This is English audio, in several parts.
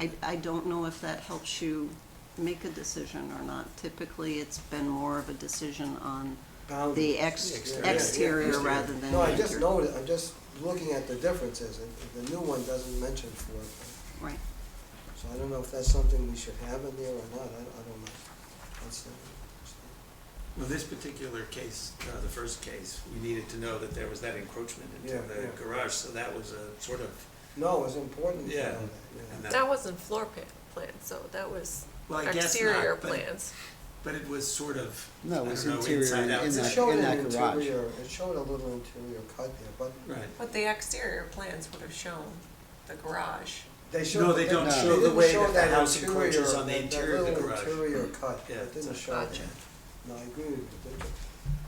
I, I don't know if that helps you make a decision or not. Typically, it's been more of a decision on Boundaries. the ex- Exterior. exterior rather than No, I just interior. noted, I'm just looking at the differences, and the new one doesn't mention floor plan. Right. So I don't know if that's something we should have in there or not, I, I don't know. That's the- Well, this particular case, uh, the first case, we needed to know that there was that encroachment into Yeah, the yeah. garage, so that was a sort of, No, it's important to know Yeah, that, and yeah. that- That wasn't floor pa- plan, so that was well, I guess exterior not, but, plans. but it was sort of, I No, don't it was know, interior inside, and outside. It that- showed in an garage. interior, it showed a little interior cut there, but Right, But the exterior plans would have shown the garage. they showed. No, they don't didn't- show they the didn't way show that the house encroaches interior- on the interior of the garage. That little interior cut, Yeah, it didn't it's show that. Gotcha. No, I agree with you. it didn't.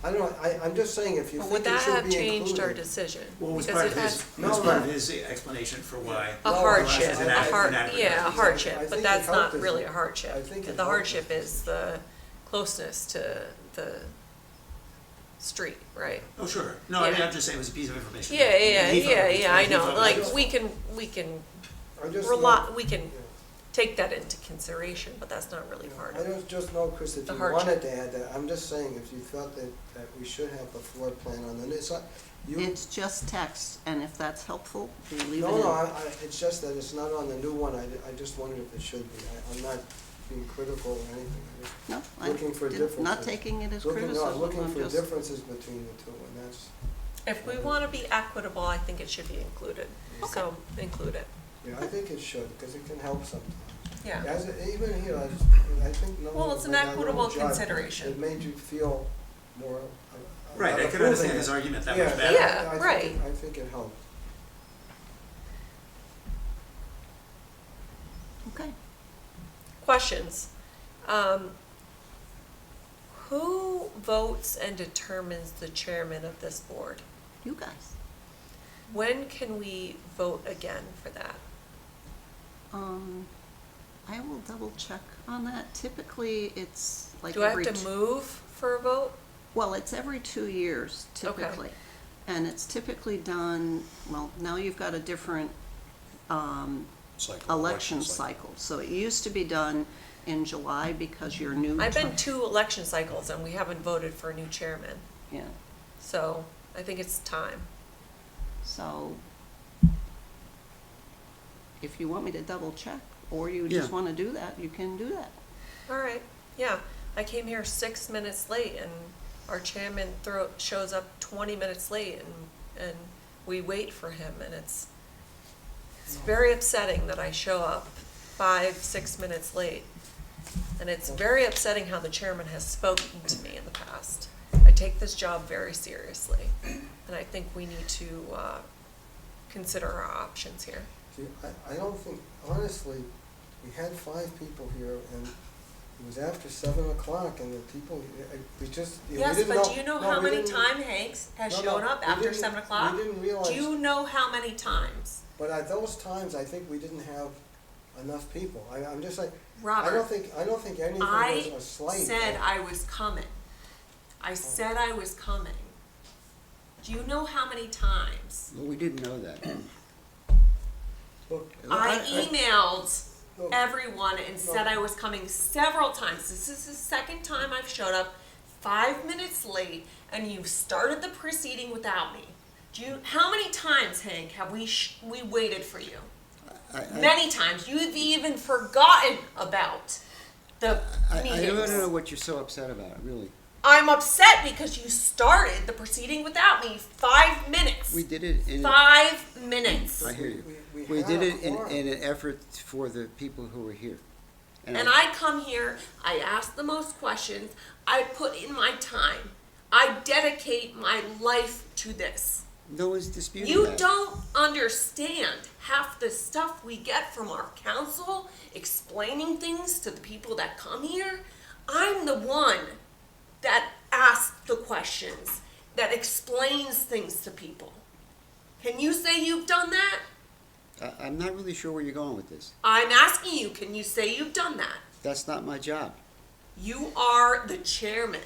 I don't, I, I'm just saying, if you But think would it that should have be changed our included. decision? well, it was Because part of it had his, it was No, part of no. his explanation for why, A No, hardship, it's a an ad- hard, an advertising. yeah, a I hardship, think but it that's helped not us. really I a think it hardship. The helped hardship us. is the closeness to the street, right? oh, sure, no, I mean, Yeah. I'm just saying it was a piece of information. Yeah, that he yeah, thought it yeah, was- yeah, I he thought it know, was like, useful. we can, we can I just rely, know- we can Yeah. take that into consideration, but that's not really part I of it. don't just know, Chris, if The you hardship. wanted to add that, I'm just saying, if you felt that, that we should have the floor plan on, and it's not, you, It's just text, and if that's helpful, we leave it no, no, I, in. I, it's just that it's not on the new one, I, I just wondered if it should be, I, I'm not being critical or anything. I just- No, looking for I did, not differences. taking it as Looking, no, I'm criticism, looking I'm for just, differences between the two, and that's, If we wanna be equitable, I think it should be included, so include it, yeah, I think it should, because it can help sometimes. yeah. As, even here, I, just- I think no. Well, it's an like, I won't equitable judge. consideration. It made you feel more. uh, Right, I about could understand approving his it. argument that Yeah, much I- better. Yeah, I think it- right. I think it helped. okay. Questions? Um, Who votes and determines the chairman of this board? You guys, When can we vote again for that? um, I will double check on that. Typically, it's like Do I have every to two- move for a vote? Well, it's every two years Okay. typically. And it's typically done, well, now you've got a different um, election cycle. So it used to be done in July because you're new. I've been term- two election cycles and we haven't voted for a new chairman, Yeah, so I think it's time. so if you want me to double check or you Yeah. just want to do that, you can do that. All right, yeah, I came here six minutes late and our chairman throw, shows up twenty minutes late and, and we wait for him and it's, it's very upsetting that I show up five, six minutes late. And it's very upsetting how the chairman has spoken to me in the past. I take this job very seriously and I think we need to, uh, consider our options here. See, I, I don't think, honestly, we had five people here, and it was after seven o'clock, and the people, uh, we just, we didn't know. Yes, but do you know no, how we many didn't- times Hanks has no, no, shown up we after didn't- seven o'clock? We didn't realize. Do you know how many times? But at those times, I think we didn't have enough people. I, I'm just like, I Robert, don't think, I don't think anything was I a slight. said I was coming. I said I was coming. Do you know how many times? Well, we didn't know that. Look, I emailed look, everyone and said I was coming several times. This is the second time I've showed up five minutes late and you started the proceeding without me. Do you, how many times, Hank, have we, sh- we waited for you? I, I, many times. You've even forgotten about the I, I meetings. don't know what you're so upset about, really. I'm upset because you started the proceeding without me. Five minutes. We did it in, I Five minutes. hear you. We- we- we We did had a it in, quorum. in an effort for the people who were here. And I come here, I ask the most questions, I put in my time, I dedicate my life to this. No one's disputing You that. don't understand half the stuff we get from our council explaining things to the people that come here. I'm the one that asks the questions, that explains things to people. Can you say you've done that? I, I'm not really sure where you're going with this. I'm asking you, can you say you've done that? That's not my job. You are the chairman.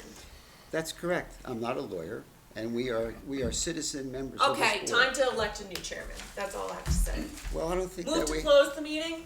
That's correct. I'm not a lawyer, and we are, we are citizen members of this Okay, board. time to elect a new chairman. That's all I have to say. Well, I don't think Move that to we, close the meeting?